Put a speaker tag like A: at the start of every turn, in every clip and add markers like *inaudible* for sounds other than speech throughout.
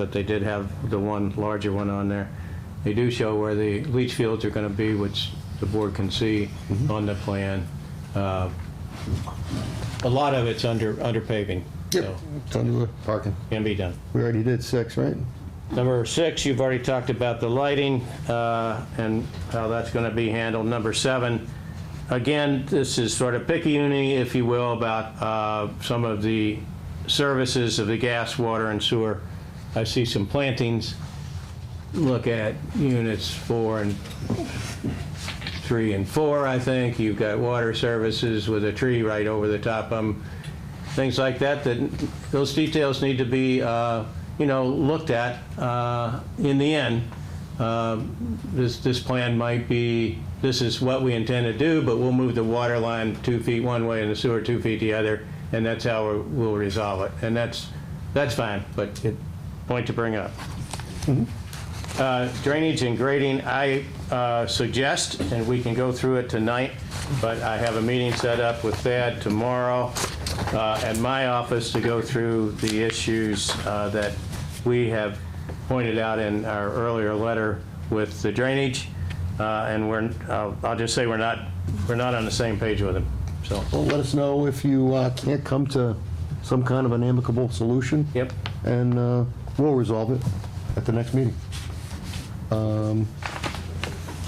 A: but they did have the one larger one on there. They do show where the leach fields are going to be, which the board can see on the plan. Uh, A lot of it's under, under paving, so
B: It's under the parking.
A: can be done.
B: We already did six, right?
A: Number six, you've already talked about the lighting uh, and how that's going to be handled. Number seven, again, this is sort of picky-uni, if you will, about uh, some of the services of the gas, water, and sewer. I see some plantings. Look at units four and three and four, I think. You've got water services with a tree right over the top of them, things like that, that those details need to be, uh, you know, looked at uh, in the end. Uh, This, this plan might be, this is what we intend to do, but we'll move the water line two feet one way and the sewer two feet the other, and that's how we'll- we'll resolve it. And that's, that's fine, but it, point to bring up. Uh, Drainage and grading, I uh, suggest, and we can go through it tonight, but I have a meeting set up with Thad tomorrow uh, at my office to go through the issues uh, that we have pointed out in our earlier letter with the drainage, Uh, and we're, I'll I'll just say we're not, we're not on the same page with him, so.
B: Well, let us know if you uh, can't come to some kind of an amicable solution.
A: Yep.
B: And uh, we'll resolve it at the next meeting. Um,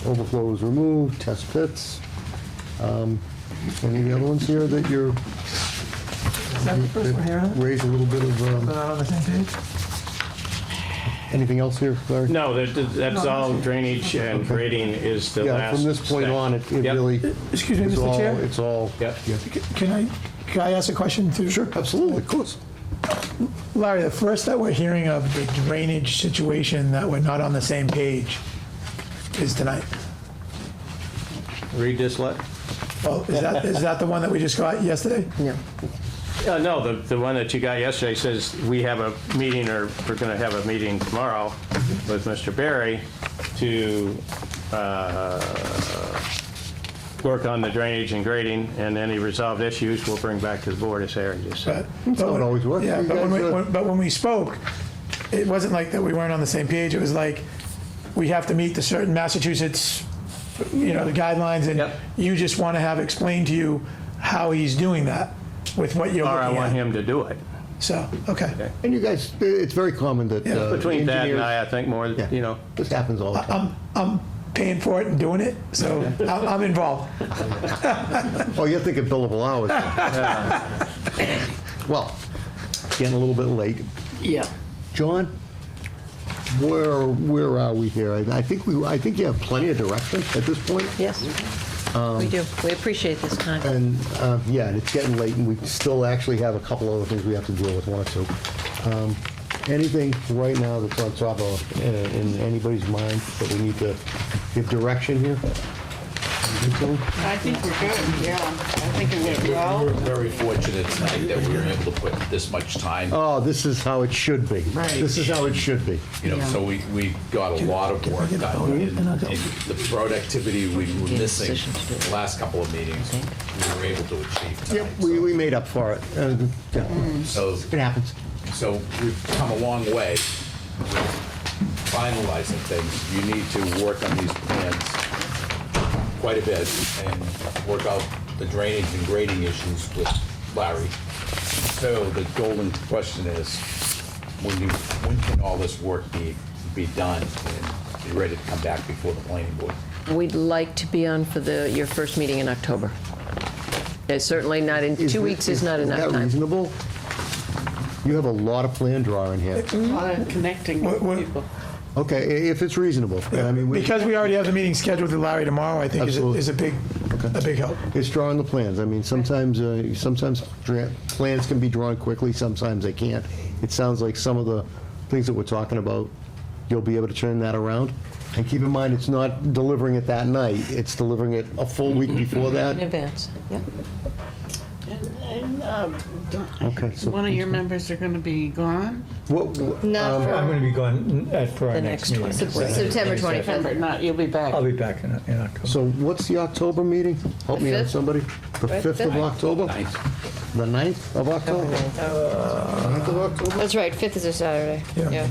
B: Overflow was removed, test pits. Um, Any of the other ones here that you're,
C: Is that the first one here, huh?
B: raise a little bit of,
C: We're
B: um,
C: not on the same page?
B: anything else here, Larry?
A: No, that- that's all drainage and grading is the last
B: Yeah, from this point
A: step.
B: on, it it
A: Yep.
B: really,
C: Excuse me,
B: it's
C: Mr.
B: all,
C: Chair?
B: it's all.
A: Yep.
B: Yeah.
C: C- Can I, can I ask a question too?
B: Sure, absolutely, of course.
C: Larry, the first that we're hearing of the drainage situation that we're not on the same page is tonight.
A: Read this letter.
C: Oh, is that, is that the one that we just got yesterday?
D: No.
A: Uh, No, the, the one that you got yesterday says, we have a meeting, or we're going to have a meeting tomorrow with Mr. Barry to uh, work on the drainage and grading, and any resolved issues we'll bring back to the board, as Aaron just said.
C: But- but
B: how it
C: when-
B: always works.
C: Yeah,
B: You
C: but when
B: guys,
C: we,
B: uh,
C: when- but when we spoke, it wasn't like that we weren't on the same page. It was like, we have to meet the certain Massachusetts, you know, the guidelines, and
A: Yep.
C: you just want to have explained to you how he's doing that with what you're
A: Or I
C: looking
A: want
C: at.
A: him to do it.
C: So, okay.
B: And you guys, it's very common that.
C: Yeah.
B: uh,
A: Between that and
B: engineers-
A: I, I think more,
B: Yeah.
A: you know,
B: This happens all the time.
C: I'm, I'm paying for it and doing it, so *laughs* I'm I'm involved.
B: Oh, you're thinking billable hours. Well, getting a little bit late.
D: Yeah.
B: John, where, where are we here? I I think we, I think you have plenty of direction at this point.
D: Yes. We do. We appreciate this time.
B: And, uh, yeah, and it's getting late, and we still actually have a couple other things we have to deal with, one or two. Um, Anything right now that's on top of, uh, in anybody's mind that we need to give direction here? You think so?
E: I think we're good, yeah. I think it went
F: We're
E: well.
F: very fortunate tonight that we were able to put this much time,
B: Oh, this is how it should be. Right. This is how it should be.
F: you know, so we, we got a lot of work done. And and the productivity we were missing the last couple of meetings, we were able to achieve
B: Yep,
F: tonight.
B: we,
F: So-
B: we made up for it. Uh, yeah.
D: Mm.
F: So,
B: It happens.
F: so we've come a long way with finalizing things. You need to work on these plans quite a bit and work out the drainage and grading issues with Larry. So the golden question is, when you, when can all this work be, be done and be ready to come back before the planning board?
D: We'd like to be on for the, your first meeting in October. It's certainly not, in two weeks is not enough
B: Is that
D: time.
B: reasonable? You have a lot of plan drawing here.
E: A lot of connecting
C: What-
E: with
C: what-
E: people.
B: Okay, i- if it's reasonable. I mean, we-
C: Because we already have the meeting scheduled with Larry tomorrow, I think is a,
B: Absolutely.
C: is a big, a big help.
B: It's drawing the plans. I mean, sometimes, uh, sometimes dra- plans can be drawn quickly, sometimes they can't. It sounds like some of the things that we're talking about, you'll be able to turn that around. And keep in mind, it's not delivering it that night, it's delivering it a full week before that.
D: In advance, yeah.
E: And, and
B: Okay, so-
E: One of your members are gonna be gone,
B: What,
D: Not
C: I'm
D: for
C: going to be gone at, for our
G: The
C: Um,
G: next
C: next meeting.
G: one.
C: so that-
D: September 25th.
E: September, not, you'll be back.
C: I'll be back in, in October.
B: so what's the October meeting? Help me out,
G: fifth?
B: somebody. The 5th of
D: fifth?
B: October? The 9th of October? 9th of October?
D: That's right, 5th is a Saturday. Yeah.